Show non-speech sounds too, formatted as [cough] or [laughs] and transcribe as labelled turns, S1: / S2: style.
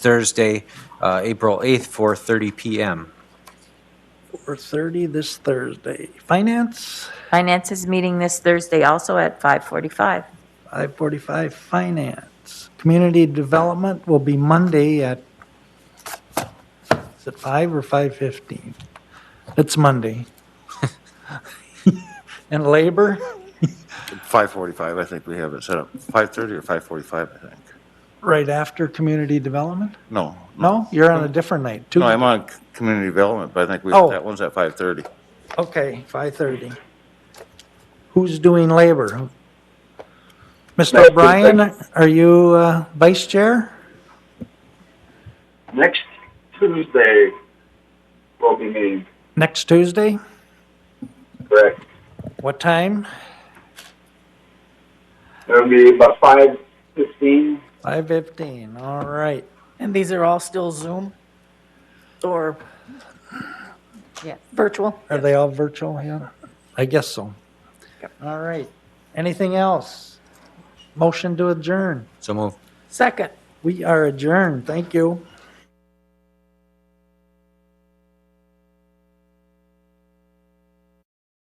S1: Thursday, uh, April 8th, 4:30 PM.
S2: Four thirty this Thursday. Finance,
S3: Finance is meeting this Thursday also at 5:45.
S2: five forty-five, finance. Community development will be Monday at, is it five or five fifteen? It's Monday. [laughs] And labor,
S4: 5:45, I think we have it set up. 5:30 or 5:45, I think.
S2: right after community development?
S4: No.
S2: No, you're on a different night,
S4: No, I'm
S2: Tuesday.
S4: on c- community development, but I think we,
S2: Oh.
S4: that one's at 5:30.
S2: Okay, five thirty. Who's doing labor? Mr. O'Brien, are you uh, vice chair?
S5: Next Tuesday will be meeting,
S2: Next Tuesday?
S5: correct?
S2: What time?
S5: It'll be about five fifteen.
S2: Five fifteen, all right.
S6: And these are all still Zoom or
S3: Yes.
S6: virtual?
S2: Are they all virtual, yeah? I guess so. All right. Anything else? Motion to adjourn.
S1: So move.
S6: Second.
S2: We are adjourned, thank you.